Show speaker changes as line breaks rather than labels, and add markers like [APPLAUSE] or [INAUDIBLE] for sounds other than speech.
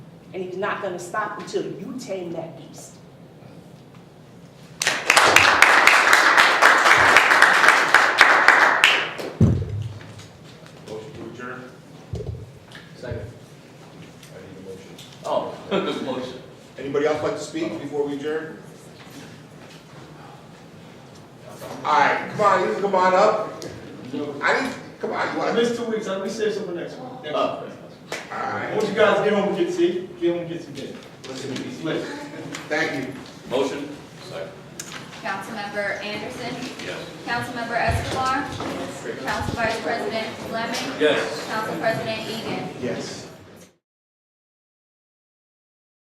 and he's not gonna stop until you tame that beast.
Motion to adjourn?
Second.
I need a motion.
Oh, [LAUGHS] motion.
Anybody else like to speak before we adjourn? Alright, come on, you can come on up. I need, come on, you
I
wanna,
missed two weeks, I'm gonna say something next week. Next
Oh.
week. I
alright,
want you guys to get home and get see, get home and get some dinner.
listen to me.
Listen.
Thank you.
Motion? Second.
Councilmember Anderson.
Yes.
Councilmember Escobar. Council Vice President Fleming.
Yes.
Council President Egan.
Yes.